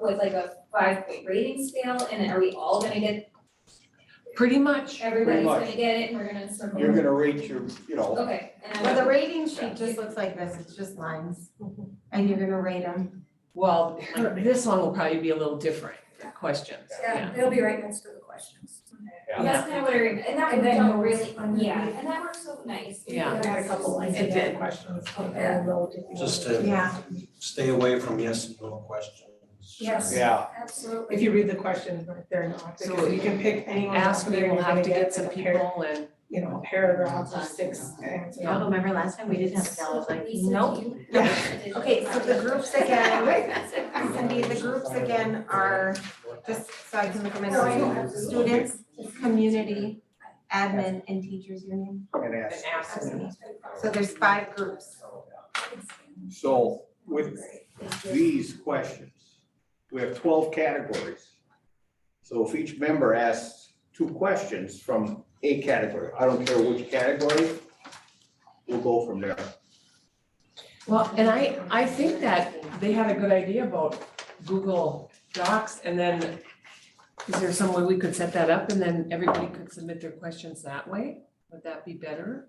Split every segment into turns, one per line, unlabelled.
with like a five point rating scale and are we all gonna get,
Pretty much.
everybody's
much.
gonna get it and we're gonna circle?
You're gonna rate your, you know,
Okay, and
Well,
I
the rating sheet just looks like this, it's just lines, and you're gonna rate them.
Well, her- this one will probably be a little different, the questions, yeah.
Yeah, it'll be right next to the questions.
Yeah.
that's kind of what I, rem- and that
And
would
then
don't
notes
really,
on the-
yeah, and that works so nice.
Yeah.
I had a couple lines
It
of
did.
questions.
Yeah.
Just to
Yeah.
stay away from yes and no questions.
Yes.
yeah,
Absolutely.
If you read the questions, right, they're not,
So
because you can pick anyone.
Ask
out
me,
there,
we'll
you're
have
gonna
to get some
a pair-
people and,
You know, a paragraph or six answers.
Y'all Oh, remember last time we didn't have a
So,
ballot, like,
Lisa, do
nope.
you
Yeah.
have a
Okay, so the groups again, Cindy, the groups again are, just so I can look them in, order. students, community, admin, and teachers union.
and
and
ask.
ask them.
So there's five groups.
So with these questions, we have twelve categories. So if each member asks two questions from a category, I don't care which category, we'll go from there.
Well, and I, I think that they had a good idea about Google Docs and then is there some way we could set that up and then everybody could submit their questions that way? Would that be better?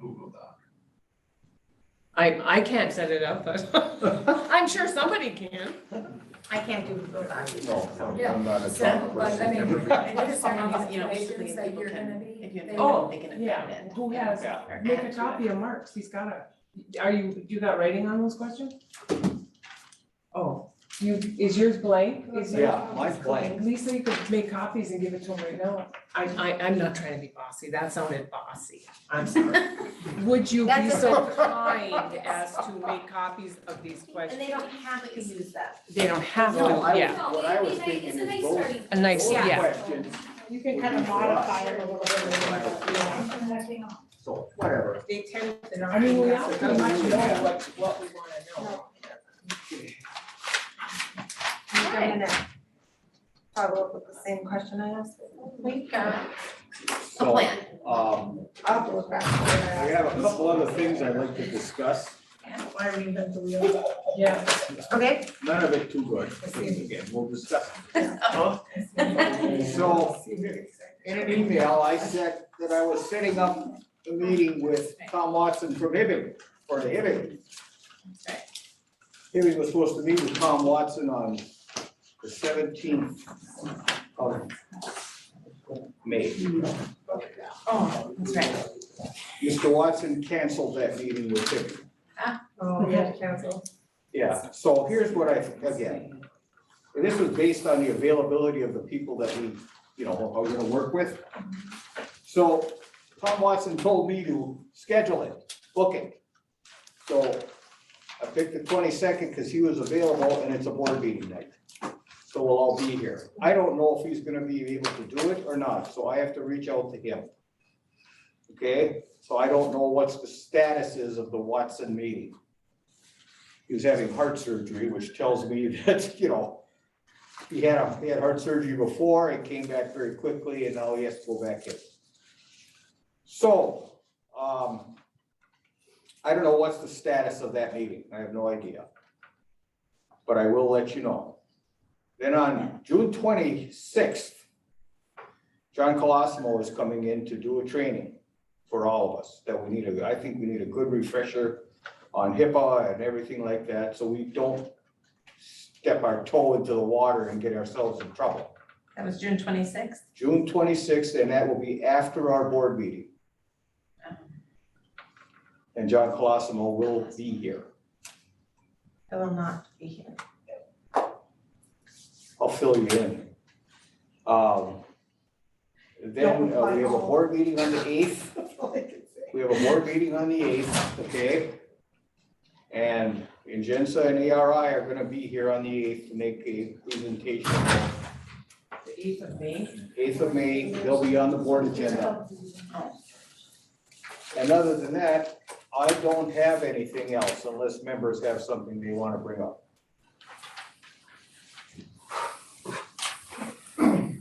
Google Doc.
I, I can't set it up, but I'm sure somebody can.
I can't do Google Docs.
No, I'm- I'm not a
So,
strong
but I mean,
person.
what is some of
You know,
the
just so that
situations that
people
you're
can-
gonna be?
if you have
they
to-
will-
Oh,
they can affect
yeah.
it.
Who has,
Yeah.
or
make
add
a
to
copy of Mark's, he's got a, are you, you got writing on those questions? Oh, you, is yours blank? Is yours-
Yeah, mine's blank.
Lisa, you could make copies and give it to him right now. I, I, I'm not trying to be bossy, that sounded bossy, I'm sorry. Would you be
That's
so kind as to make copies of these
And
questions?
they don't have to use that.
They don't have
No, I
to, yeah,
No,
What I
it'd
was
be nice-
thinking
it's a
is
nice
both-
starting
a nice,
Those
yeah.
Questions,
You can kind of modify it a little bit. yeah.
so whatever.
They tend,
They're not-
I mean, we all pretty much know what, what we wanna know.
I'm gonna follow up with the same question I asked.
We've got a
So,
plan.
Um,
I'll have to look back.
we have a couple other things I'd like to discuss,
Why reinvent the wheel?
Yeah,
Okay,
none of it too good, again, we'll discuss. So, in an email, I said that I was setting up a meeting with Tom Watson from Hibbing, for the Hibbing. Hibbing was supposed to meet with Tom Watson on the seventeenth of May.
Oh, that's right.
Mr. Watson canceled that meeting with Hibbing.
Oh, we had to cancel.
Yeah, so here's what I, again, and this was based on the availability of the people that we, you know, are gonna work with. So Tom Watson told me to schedule it, book it. So I picked the twenty-second because he was available and it's a board meeting night. So we'll all be here. I don't know if he's gonna be able to do it or not, so I have to reach out to him. Okay, so I don't know what's the status is of the Watson meeting he was having heart surgery, which tells me that, you know, he had, a- he had heart surgery before, it came back very quickly, and now he has to go back in. So, um, I don't know what's the status of that meeting, I have no idea. But I will let you know. Then on June twenty-sixth, John Colosimo is coming in to do a training for all of us, that we need a, I think we need a good refresher on HIPAA and everything like that, so we don't step our toe into the water and get ourselves in trouble.
That was June twenty-sixth.
June twenty-sixth, and that will be after our board meeting. And John Colosimo will be here.
I will not be here.
I'll fill you in. Um, Then uh, we have a board meeting on the eighth. We have a board meeting on the eighth, okay? And Ingenza and ARI are gonna be here on the eighth to make a presentation.
the eighth of May.
eighth of May, they'll be on the board agenda. And other than that, I don't have anything else unless members have something they want to bring up.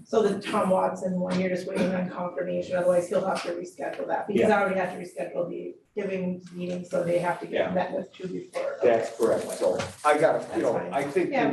So the Tom Watson one, you're just waiting on confirmation, otherwise he'll have to reschedule that, because I already had to reschedule the giving meeting, so they have to
Yeah.
get met with two before.
That's correct, so I got, you know, I think the
Yeah.